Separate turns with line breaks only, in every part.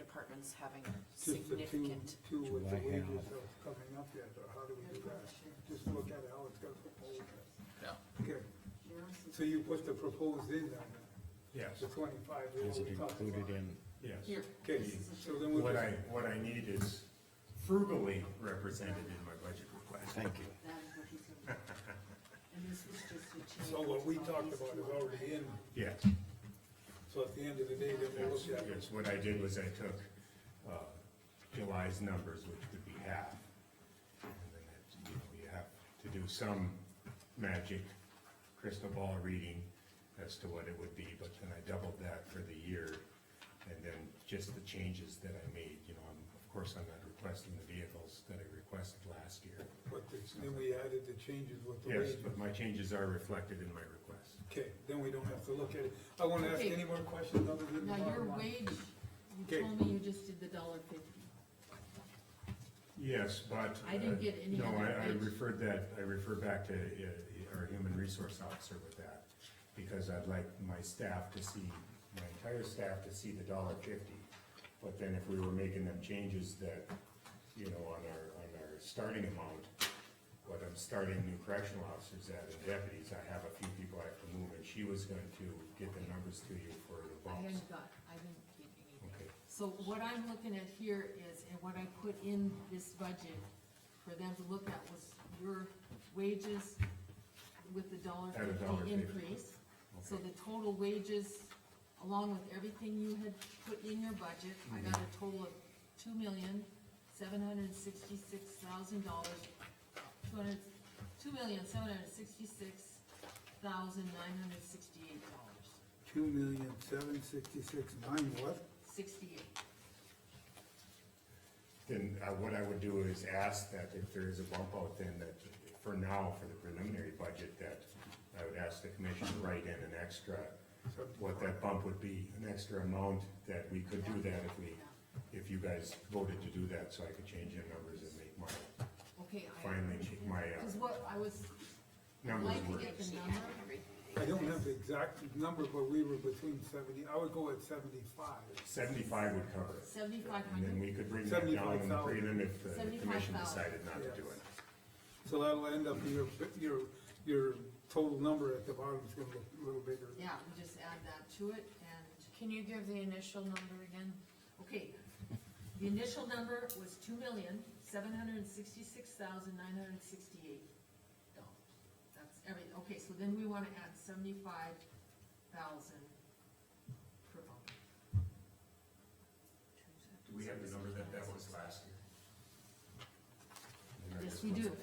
departments having
Just the two,
significant.
two with the
July half.
wages of coming up yet, or how do we do that? Just look at how it's gonna propose.
Yeah.
Okay, so you put the proposed in then,
Yes,
the twenty-five. what
Is it
we talked
included
about.
in,
yes.
Here,
Okay, so then we'll
What I,
just,
what I need is frugally represented in my budget request.
thank you.
that is what he's gonna do. And this was just a change.
so what we talked
of
about
these
is
two
already in,
Yes,
so at the end of the day, then we'll
yes,
look at it.
yes. What I did was I took, uh, July's numbers, which would be half. And then it's, you know, you have to do some magic crystal ball reading as to what it would be, but then I doubled that for the year. And then just the changes that I made, you know, I'm, of course, I'm not requesting the vehicles that I requested last year.
But it's- then we added the changes with the
Yes,
wages.
but my changes are reflected in my request.
Okay, then we don't have to look at it. I won't ask
Okay.
any more questions other than.
Now,
the
your
bottom line.
wage, you
Okay.
told me you just did the dollar fifty.
Yes, but.
I didn't
uh,
get any
No,
other
I, I
bids.
referred that, I refer back to uh, our human resource officer with that, because I'd like my staff to see, my entire staff to see the dollar fifty. But then if we were making them changes that, you know, on our, on our starting amount, what I'm starting new correctional officers at and deputies, I have a few people I have to move, and she was going to get the numbers to you for the
I
bumps.
hadn't got, I didn't get anything.
Okay.
So what I'm looking at here is, and what I put in this budget for them to look at was your wages with the dollar
At a dollar
fifty
fifty.
increase. So
Okay.
the total wages, along with everything you had put in your budget, I got
Mhm.
a total of two million, seven hundred sixty-six thousand dollars, two hundred, two million, seven hundred sixty-six thousand, nine hundred sixty-eight dollars,
Two million, seven sixty-six, nine what?
sixty-eight.
Then uh, what I would do is ask that if there is a bump out, then that for now, for the preliminary budget, that I would ask the commission to write in an extra, what that bump would be, an extra amount that we could do that if we, if you guys voted to do that, so I could change the numbers and make my,
Okay, I.
finally make my uh,
Cause what I was, I'd
numbers
like to
work.
get the number,
I don't have the exact number, but we were between seventy, I would go at seventy-five.
Seventy-five would cover it,
seventy-five
and then
hundred,
we could bring that down in the
75,000.
prelim if the commission
75,000.
decided not to do
Yes.
it.
So that'll end up, your, your, your total number at the bottom is gonna look a little bigger.
yeah, we just add that to it and,
Can you give the initial number again?
okay. The initial number was two million, seven hundred and sixty-six thousand, nine hundred and sixty-eight dollars. That's every, okay, so then we wanna add seventy-five thousand per bump.
Do we have the number that that was last year? And I
Yes,
just
we
want-
do.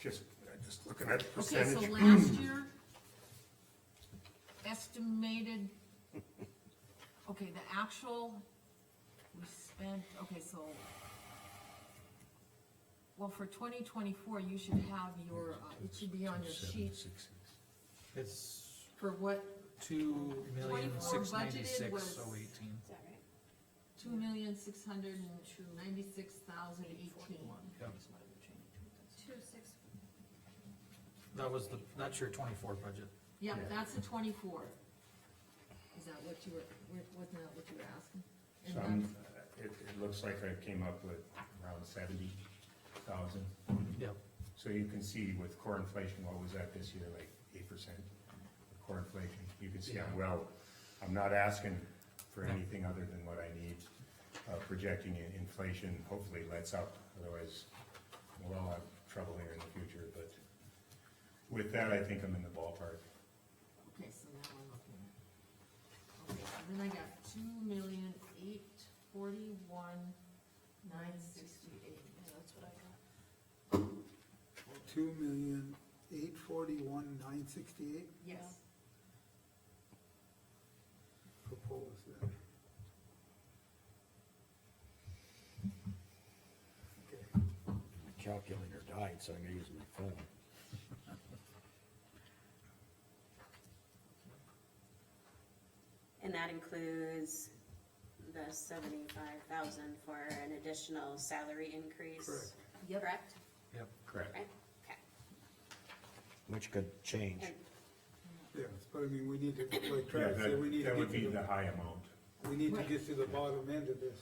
Just, I'm just looking at the
Okay, so
percentage.
last year, estimated, okay, the actual, we spent, okay, so, well, for twenty twenty-four, you should have your, uh, it should be on your sheet
It's
for what,
two million,
24
six
budgeted
ninety-six,
was-
so eighteen.
Is that right?
two million, six hundred and ninety-six thousand eighteen?
Two six,
That was the, that's your twenty-four budget.
Yeah,
Yeah.
that's a twenty-four. Is that what you were, wasn't that what you were asking? And
So
that's-
I'm- Um, It, it looks like I came up with around seventy thousand.
Yep.
So you can see with core inflation, what was that this year, like eight percent core inflation? You can see I'm well, I'm not asking for
Yeah.
anything other than what I need. Uh, projecting in- inflation hopefully lets up, otherwise we'll all have trouble here in the future, but with that, I think I'm in the ballpark.
Okay, so now we're looking at. Okay, and then I got two million eight forty-one nine sixty-eight.
that's what I got.
Two million, eight forty-one, nine sixty-eight
Yes,
proposed then. Okay,
My Calculator died, so I'm gonna use my phone.
And that includes the seventy-five thousand for an additional salary increase,
Correct.
Yep.
correct?
Yep.
Correct.
Right, okay.
Which could change.
And
Yes, but I mean, we need to, like
Yeah,
Travis said, we need
that,
to
that would
get
be
to
the
the,
high amount.
we need to
Right.
get to the bottom end of this.